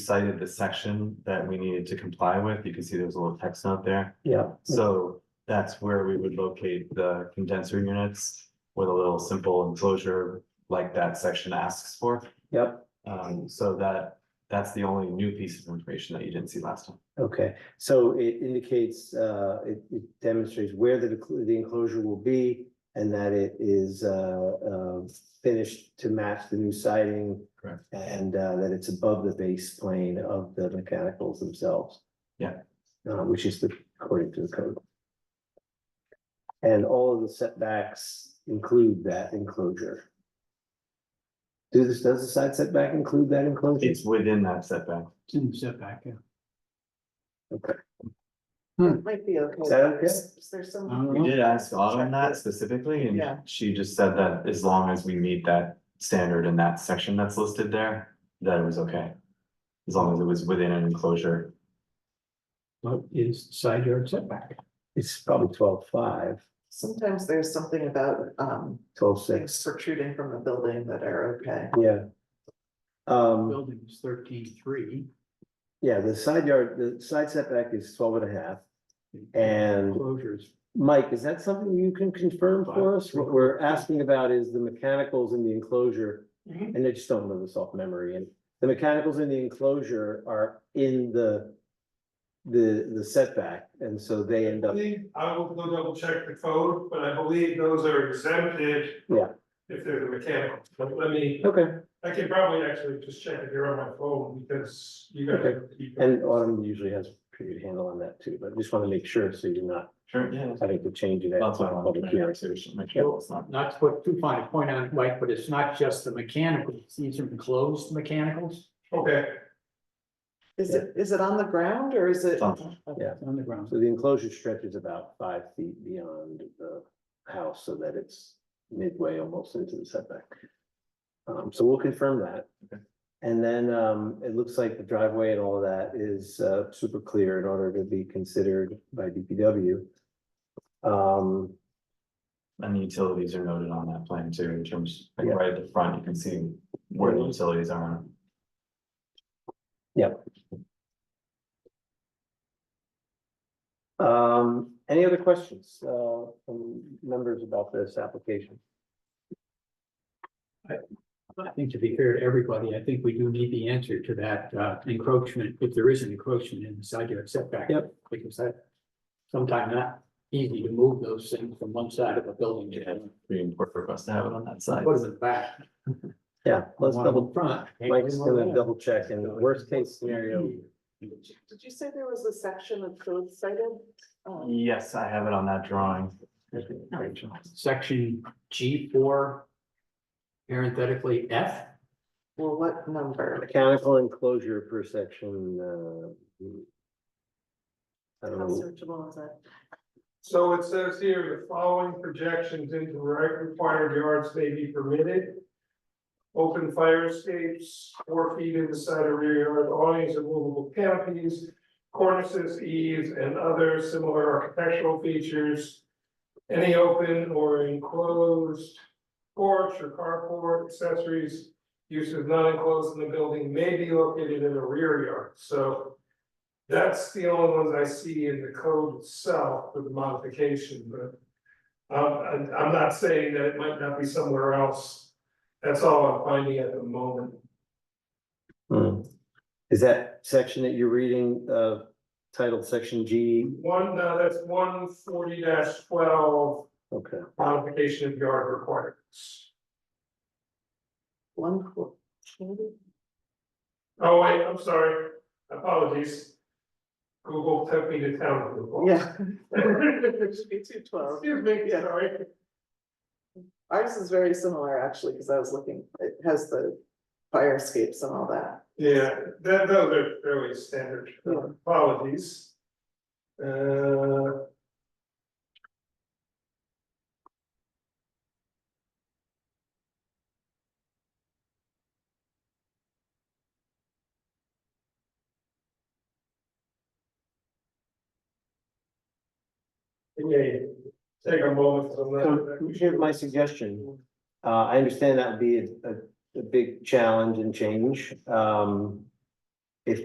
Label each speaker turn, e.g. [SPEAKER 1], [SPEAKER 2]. [SPEAKER 1] cited the section that we needed to comply with. You can see there's a little text note there.
[SPEAKER 2] Yeah,
[SPEAKER 1] So that's where we would locate the condenser units with a little simple enclosure like that section asks for.
[SPEAKER 2] yep,
[SPEAKER 1] Um, so that, that's the only new piece of information that you didn't see last time.
[SPEAKER 2] okay, so it indicates, uh, it, it demonstrates where the, decl- the enclosure will be. And that it is, uh, uh, finished to match the new siding.
[SPEAKER 1] Correct.
[SPEAKER 2] And, uh, that it's above the base plane of the mechanicals themselves.
[SPEAKER 1] Yeah.
[SPEAKER 2] Uh, which is the, according to the code. And all of the setbacks include that enclosure. Do this, does the side setback include that enclosure?
[SPEAKER 1] It's within that setback.
[SPEAKER 3] It's in the setback, yeah.
[SPEAKER 4] Might be okay.
[SPEAKER 2] Is that okay?
[SPEAKER 4] Is there
[SPEAKER 3] I
[SPEAKER 4] some,
[SPEAKER 3] don't
[SPEAKER 1] We
[SPEAKER 3] know.
[SPEAKER 1] did ask Autumn that specifically and
[SPEAKER 4] Yeah.
[SPEAKER 1] she just said that as long as we meet that standard in that section that's listed there, that it was okay. As long as it was within an enclosure
[SPEAKER 3] What is side yard setback?
[SPEAKER 2] It's probably twelve five,
[SPEAKER 4] sometimes there's something about um
[SPEAKER 2] twelve
[SPEAKER 4] things
[SPEAKER 2] six,
[SPEAKER 4] protruding from the building that are okay.
[SPEAKER 2] yeah. Um,
[SPEAKER 3] Building is thirteen-three.
[SPEAKER 2] yeah, the side yard, the side setback is twelve and a half. And-
[SPEAKER 3] Closures,
[SPEAKER 2] Mike, is that something you can confirm for us? What we're asking about is the mechanicals in the enclosure.
[SPEAKER 4] Mhm.
[SPEAKER 2] And I just don't know this off memory, and the mechanicals in the enclosure are in the. The, the setback, and so they end
[SPEAKER 5] I
[SPEAKER 2] up,
[SPEAKER 5] believe- I will go double check the code, but I believe those are exempted.
[SPEAKER 2] Yeah.
[SPEAKER 5] If they're the mechanical, but let me,
[SPEAKER 2] okay,
[SPEAKER 5] I can probably actually just check if you're on my phone, because you gotta. keep-
[SPEAKER 2] and uh, Autumn usually has a pretty good handle on that too, but I just wanna make sure, so you're not
[SPEAKER 1] Sure, yeah.
[SPEAKER 2] having to change it. at
[SPEAKER 1] That's what I wanted
[SPEAKER 2] public
[SPEAKER 1] to make
[SPEAKER 2] hearing.
[SPEAKER 1] sure, make sure it's not.
[SPEAKER 3] not to put too fine a point on it, Mike, but it's not just the mechanicals, these are enclosed mechanicals
[SPEAKER 5] Okay,
[SPEAKER 4] Is it, is it on the ground or is it?
[SPEAKER 1] It's on-
[SPEAKER 2] yeah.
[SPEAKER 3] on the ground.
[SPEAKER 2] So the enclosure stretches about five feet beyond the house so that it's midway almost into the setback. Um, so we'll confirm that.
[SPEAKER 1] Okay.
[SPEAKER 2] And then, um, it looks like the driveway and all of that is, uh, super clear in order to be considered by DPW. Um,
[SPEAKER 1] And the utilities are noted on that plan too, in terms, like
[SPEAKER 2] Yeah.
[SPEAKER 1] right at the front, you can see where the utilities are.
[SPEAKER 2] um, any other questions, uh, from members about this application?
[SPEAKER 3] I think to be fair to everybody, I think we do need the answer to that uh, encroachment, if there is an encroachment in the side yard setback.
[SPEAKER 2] Yep.
[SPEAKER 3] Because that, sometimes not easy to move those things from one side of a building to the other.
[SPEAKER 1] Pretty important for us to have it on that side.
[SPEAKER 3] What is it back?
[SPEAKER 2] Yeah, let's
[SPEAKER 3] One in
[SPEAKER 2] double,
[SPEAKER 3] Front.
[SPEAKER 2] Mike's gonna double check and worst case scenario,
[SPEAKER 4] Did you say there was a section of code cited? Um,
[SPEAKER 1] Yes, I have it on that drawing.
[SPEAKER 3] Section G four. Parenthetically F,
[SPEAKER 4] Well, what number?
[SPEAKER 2] mechanical enclosure per section, uh. I
[SPEAKER 4] How
[SPEAKER 2] don't know.
[SPEAKER 4] searchable is that?
[SPEAKER 5] so it says here, the following projections into right required yards may be permitted. Open fire escapes, four feet in the side or rear yard, awnings and movable canopies, cornices, eaves, and other similar architectural features. Any open or enclosed porch or carport accessories, uses not enclosed in the building may be located in the rear yard, so. That's the only ones I see in the code itself with the modification, but. Um, I- I'm not saying that it might not be somewhere else, that's all I'm finding at the moment.
[SPEAKER 2] Hmm. Is that section that you're reading, uh, titled section G?
[SPEAKER 5] One, no, that's one forty twelve
[SPEAKER 2] Okay,
[SPEAKER 5] modification of yard requirements.
[SPEAKER 4] One four, maybe?
[SPEAKER 5] Oh, wait, I'm sorry, apologies. Google took me to town. Google.
[SPEAKER 4] Yeah. It should be two twelve.
[SPEAKER 5] Excuse me, sorry.
[SPEAKER 4] Ours is very similar actually, because I was looking, it has the fire escapes and all that.
[SPEAKER 5] Yeah, that, those are fairly standard,
[SPEAKER 4] Yeah.
[SPEAKER 5] apologies. Uh. Okay, take a moment. to
[SPEAKER 2] so
[SPEAKER 5] let-
[SPEAKER 2] here's my suggestion. Uh, I understand that would be a, a, a big challenge and change, um.